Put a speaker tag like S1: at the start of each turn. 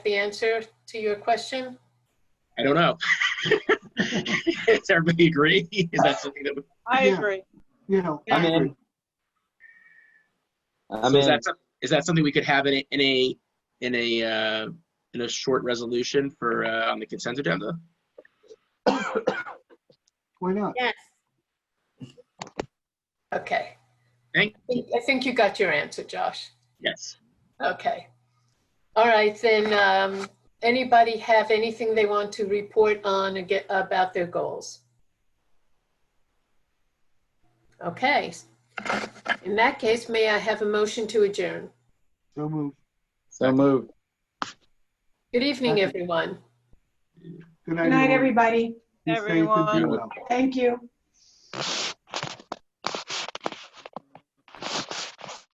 S1: the answer to your question?
S2: I don't know. Does everybody agree? Is that something that, would-
S3: I
S4: Yeah.
S3: agree.
S4: You know,
S3: I
S4: I
S5: mean-
S4: agree.
S5: I
S2: so
S5: mean,
S2: is that, some- is that something we could have in a, in a, in a, uh, in a short resolution for, uh, on the consent agenda?
S4: why not?
S1: Yes. Okay.
S2: Thank-
S1: I think- I think you got your answer, Josh.
S2: Yes.
S1: Okay. All right, then, um, anybody have anything they want to report on and get about their goals? Okay. In that case, may I have a motion to adjourn?
S4: So moved.
S5: so moved.
S1: Good evening,
S4: Second.
S1: everyone.
S4: Good
S6: Good night,
S4: everyone.
S6: everybody.
S4: Be safe and be
S3: Everyone.
S4: well.
S6: Thank you.